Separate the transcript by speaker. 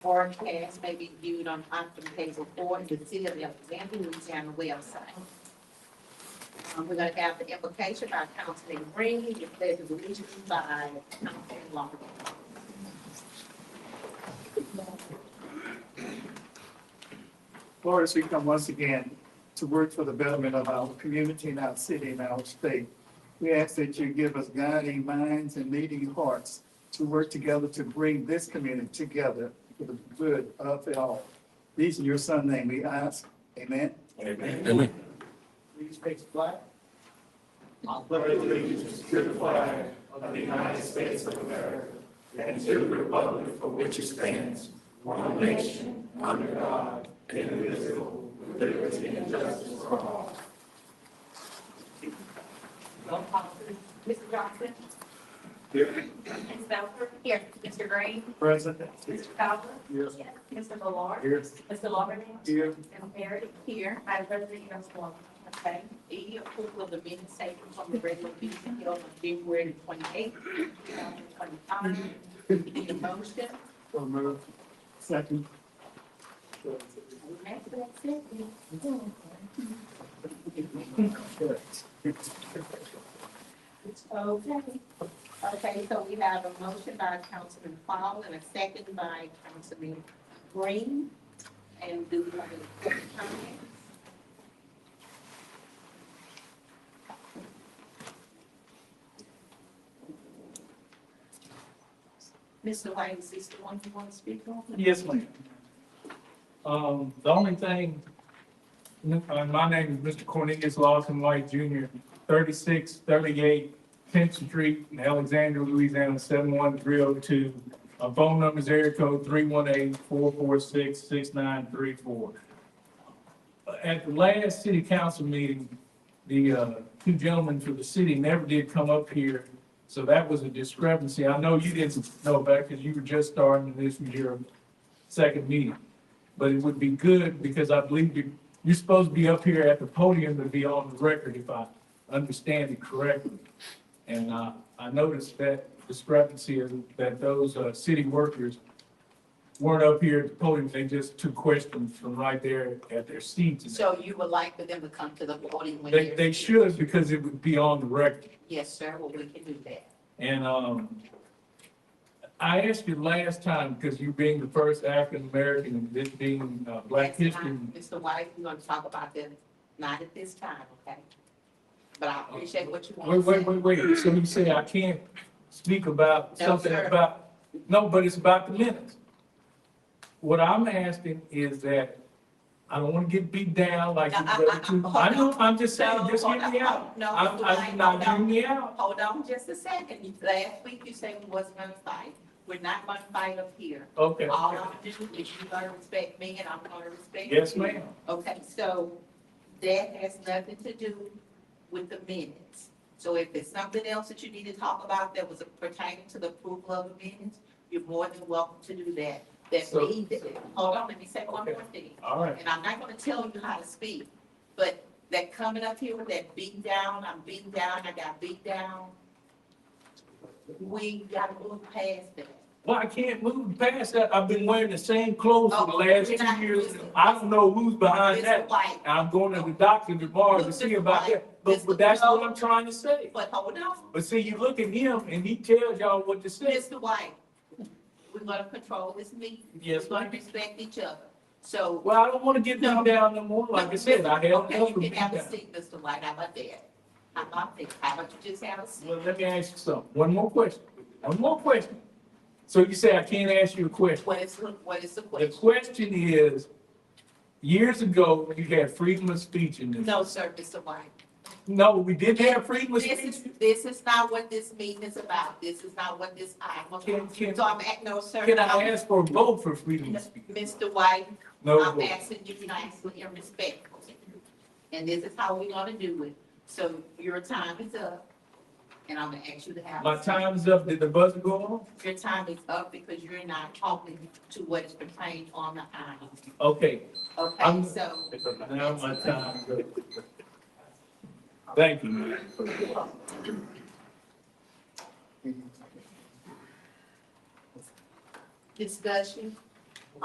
Speaker 1: or cash may be viewed on option table four in the city of Alexandria, Louisiana website. Um, we're gonna have the invocation by Councilman Green, the pledge of allegiance by Councilman Long.
Speaker 2: Lord, as we come once again to work for the betterment of our community and our city and our state, we ask that you give us guiding minds and leading hearts to work together to bring this community together for the good of it all. These in your son's name we ask, amen?
Speaker 3: Amen.
Speaker 2: Please take the flag.
Speaker 1: Roll call, please.
Speaker 4: Mr. Johnson? Here. Ms. Belford? Here. Mr. Green?
Speaker 2: President.
Speaker 4: Mr. Fowler?
Speaker 2: Yes.
Speaker 4: Mr. Ballard?
Speaker 2: Here.
Speaker 4: Mr. Lawberdine?
Speaker 2: Here.
Speaker 4: Ms. Perry? Here. Madam President, you have the floor.
Speaker 1: Okay, E, approval of the minutes taken from the regular meeting held on February twenty-eighth, two thousand twenty-five. Need a motion?
Speaker 2: So move. Second.
Speaker 1: Okay. Okay, so we have a motion by Councilman Paul and a second by Councilman Green. And do we have any public comments? Mr. White, is this the one you want to speak on?
Speaker 5: Yes, ma'am. Um, the only thing, uh, my name is Mr. Cornelius Lawson White Jr., thirty-six thirty-eight Tenth Street in Alexandria, Louisiana, seven one three oh two. Uh, phone number is area code three one eight four four six six nine three four. At the last city council meeting, the, uh, two gentlemen from the city never did come up here. So that was a discrepancy. I know you didn't know about it because you were just starting and this was your second meeting. But it would be good because I believe you, you're supposed to be up here at the podium to be on the record if I understand it correctly. And, uh, I noticed that discrepancy and that those, uh, city workers weren't up here at the podium. They just took questions from right there at their seats. and
Speaker 1: So you would like for them to come to the voting when
Speaker 5: They,
Speaker 1: you're?
Speaker 5: they should because it would be on the record.
Speaker 1: Yes, sir, well, we can do that.
Speaker 5: And um, I asked you last time, because you being the first African American and this being uh, Black
Speaker 1: That's
Speaker 5: History.
Speaker 1: not- Mr. White, we're gonna talk about that, not at this time, okay? But I appreciate what you
Speaker 5: Wait,
Speaker 1: want to
Speaker 5: wait,
Speaker 1: say.
Speaker 5: wait, wait. So you say I can't speak about
Speaker 1: No,
Speaker 5: something
Speaker 1: sir.
Speaker 5: about, no, but it's about the minutes. What I'm asking is that I don't want to get beat down like
Speaker 1: No, I-
Speaker 5: you
Speaker 1: I-
Speaker 5: brother too. I know, I'm just saying,
Speaker 1: No,
Speaker 5: just
Speaker 1: hold
Speaker 5: get me
Speaker 1: on.
Speaker 5: out.
Speaker 1: No,
Speaker 5: I'm,
Speaker 1: Mr.
Speaker 5: I'm
Speaker 1: White,
Speaker 5: not
Speaker 1: hold on.
Speaker 5: getting me out.
Speaker 1: Hold on just a second. You- Last week you said we wasn't gonna fight. We're not gonna fight up here.
Speaker 5: Okay.
Speaker 1: All I'm gonna do is you're gonna respect me and I'm gonna respect you.
Speaker 5: Yes, ma'am.
Speaker 1: Okay, so that has nothing to do with the minutes. So if it's something else that you need to talk about that was pertaining to the approval of the minutes, you're more than welcome to do that. That
Speaker 5: So-
Speaker 1: means, hold on, let me say one
Speaker 5: Okay.
Speaker 1: more thing.
Speaker 5: All right.
Speaker 1: And I'm not gonna tell you how to speak, but that coming up here with that beat down, I'm beat down, I got beat down. We gotta move past that.
Speaker 5: Well, I can't move past that. I've been wearing the same clothes for the
Speaker 1: Oh,
Speaker 5: last
Speaker 1: you're not-
Speaker 5: two years. I don't know who's behind
Speaker 1: Mr.
Speaker 5: Uh, that.
Speaker 1: White,
Speaker 5: I'm going to the doctor tomorrow to see about that, but, but that's
Speaker 1: Oh.
Speaker 5: what I'm trying to say.
Speaker 1: but hold on,
Speaker 5: But see, you look at him and he tells y'all what to say.
Speaker 1: Mr. White, we're gonna control this meeting.
Speaker 5: Yes,
Speaker 1: We're gonna
Speaker 5: ma'am.
Speaker 1: respect each other, so.
Speaker 5: Well, I don't want to get them down no more. Like I said, I had
Speaker 1: Okay,
Speaker 5: enough
Speaker 1: you
Speaker 5: of
Speaker 1: can
Speaker 5: being
Speaker 1: have a
Speaker 5: down.
Speaker 1: seat, Mr. White, how about that? How about that, how about you just have a seat?
Speaker 5: Well, let me ask you something. One more question. One more question. So you say I can't ask you a question.
Speaker 1: What is, what is the
Speaker 5: The
Speaker 1: question?
Speaker 5: question is, years ago, you had freedom of speech in this.
Speaker 1: No, sir, Mr. White.
Speaker 5: No, we did have freedom of
Speaker 1: This
Speaker 5: speech.
Speaker 1: is, this is not what this meeting is about. This is not what this item.
Speaker 5: Can- can-
Speaker 1: is. So I'm at, no, sir.
Speaker 5: Can I
Speaker 1: I'm-
Speaker 5: ask for a vote for freedom of speech?
Speaker 1: Mr. White,
Speaker 5: No
Speaker 1: I'm
Speaker 5: vote.
Speaker 1: asking you nicely and respectfully. And this is how we're gonna do it. So your time is up. And I'm gonna ask you to have. a
Speaker 5: My
Speaker 1: seat.
Speaker 5: time is up. Did the buzzer go on?
Speaker 1: Your time is up because you're not talking to what is pertained on the item.
Speaker 5: Okay,
Speaker 1: Okay,
Speaker 5: I'm-
Speaker 1: so.
Speaker 5: now my time is up. Thank you.
Speaker 1: Discussion,